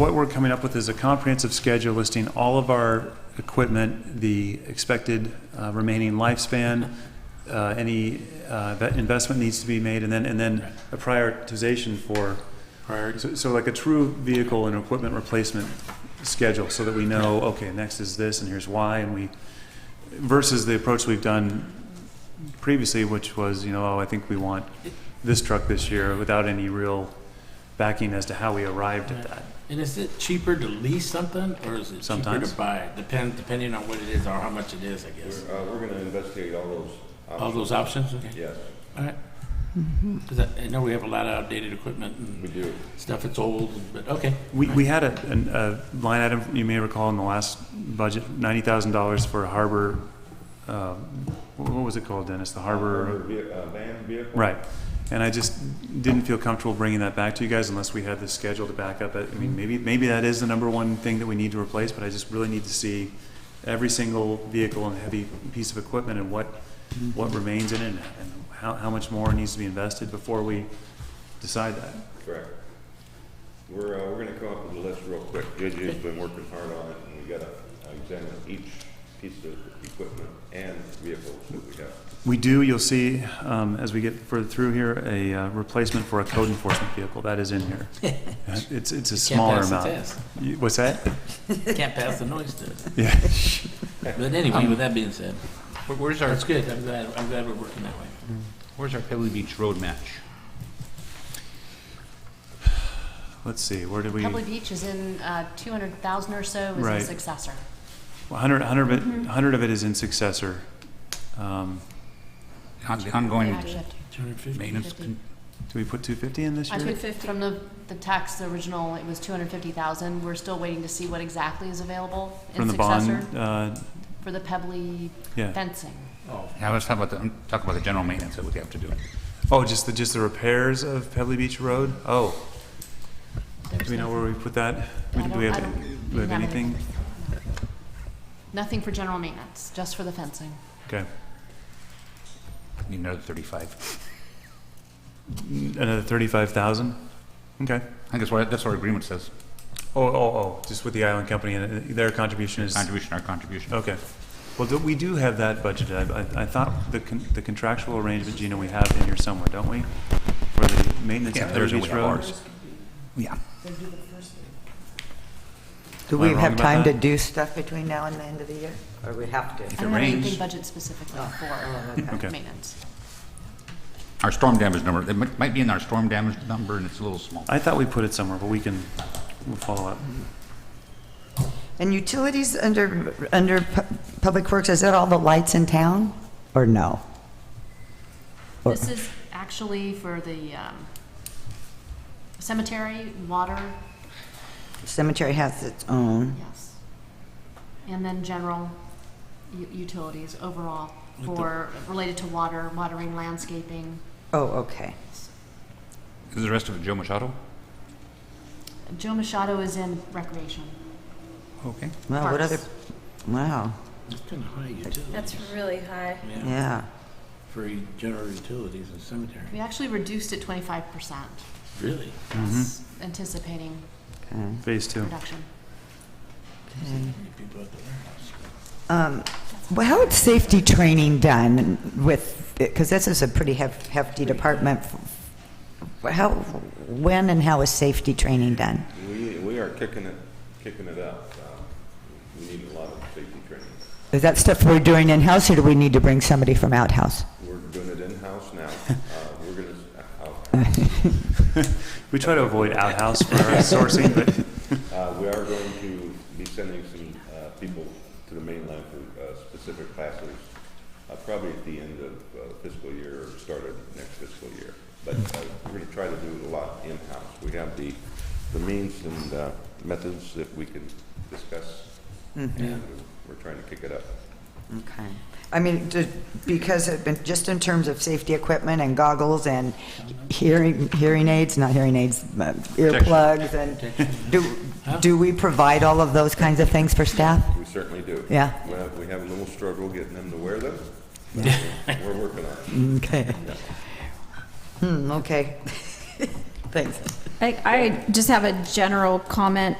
What we're coming up with is a comprehensive schedule listing all of our equipment, the expected uh, remaining lifespan, uh, any uh, that investment needs to be made, and then, and then a prioritization for, priorities. so so like a true vehicle and equipment replacement schedule, so that we know, okay, next is this, and here's why, and we, versus the approach we've done previously, which was, you know, oh, I think we want this truck this year, without any real backing as to how we arrived at that. And is it cheaper to lease something or is it cheaper Sometimes. to buy? it? Depend, depending on what it is or how much it is, I guess. We're, uh, we're gonna investigate all those. All options. those options? Okay. Yes, All right. 'Cause I I know we have a lot of outdated equipment we and do. stuff that's old, but okay. We, we had a, an- a line item, you may recall, in the last budget, ninety thousand dollars for harbor, uh, wh- what was it called, Dennis? The harbor, Vehi- uh, Van vehicle. right. And I just didn't feel comfortable bringing that back to you guys unless we had the schedule to back up it. I mean, maybe, maybe that is the number one thing that we need to replace, but I just really need to see every single vehicle and heavy piece of equipment and what, what remains in it and how, how much more needs to be invested before we decide that. Correct. We're, uh, we're gonna come up with a list real quick. Juju's been working hard on it, and we gotta uh, examine each piece of equipment and vehicles that we have. We do, you'll see, um, as we get further through here, a uh, replacement for a code enforcement vehicle, that is in here. It's, it's a smaller Can't pass the amount. test. You- What's that? Can't pass the noise test. Yeah. But anyway, with that being said, Where- Where's our, that's good. I'm glad, I'm glad we're working that way. where's our Pebble Beach road match? Let's see, where did we, Pebble Beach is in uh, 200,000 or so is Right. the successor. 100, 100 of it, Mm-hmm. 100 of it is in successor. Um, On- the Yeah, Ongoing actually, up to Two hundred fifty? maintenance, Fifty. Did we put 250 in this I year? took from the, the tax original, it was 250,000. We're still waiting to see what exactly is available From in the successor bond, uh, for the Pebbly yeah. fencing. now let's talk about the, I'm talking about the general maintenance that we have to do. Oh, just the, just the repairs of Pebbley Beach Road? Oh, There's do we know no- where we put that? I Do we don't- have, I don't- do we have not any- anything? Nothing for general maintenance, just for the fencing. Okay, Need another thirty-five. another 35,000? Okay. I think that's what, that's what our agreement says, Oh, oh, oh, just with the island company and uh, their contribution is, contribution, our contribution. okay. Well, do- we do have that budgeted. I- I, I thought the con- the contractual arrangement, Gina, we have in here somewhere, don't we? For the maintenance Yeah, of Pebble there's, we Beach have Road. ours. Yeah. Do Am I we wrong have about time to that? do stuff between now and the end of the year? Or we have to? I it don't have anything rains- budget specifically oh, for okay. maintenance. Our storm damage number, it might, might be in our storm damage number and it's a little small. I thought we put it somewhere, but we can, we'll follow up. And utilities under, under pu- Public Works, is that all the lights in town? Or no? Or- This is actually for the um, cemetery, water, Cemetery has its own. Yes. And then general u- utilities overall for, related to water, watering, landscaping. Oh, okay. Is the rest of it Joe Machado? Joe Machado is in recreation. Okay. Wow, what Parks. other, wow, That's kind of high utility. That's really high. Yeah, yeah. for general utilities and cemetery. We actually reduced it twenty-five percent, Really? anticipating okay. Phase two. reduction. People at the warehouse. Um, Well, how is safety training done with, because this is a pretty hef- hefty department. How, when and how is safety training done? We, we are kicking it, kicking it up. Uh, We need a lot of safety training. Is that stuff we're doing in-house, or do we need to bring somebody from outhouse? We're doing it in-house now. Uh, We're gonna, uh, We try to avoid outhouse for our sourcing, but Uh, we are going to be sending some, uh, people to the mainland for, uh, specific classes, uh, probably at the end of uh, fiscal year or start of next fiscal year. But, uh, we're gonna try to do a lot in-house. We have the, the means and, uh, methods that we can discuss. And we're trying to kick it up. Okay. I mean, ju- because, it been- just in terms of safety equipment and goggles and hearing, hearing aids, not hearing aids, but earplugs, and do, do we provide all of those kinds of things for staff? We certainly do. Yeah. We have, we have a little struggle getting them to wear them. but We're working on it. Okay. Hmm, okay. Thanks. I, I just have a general comment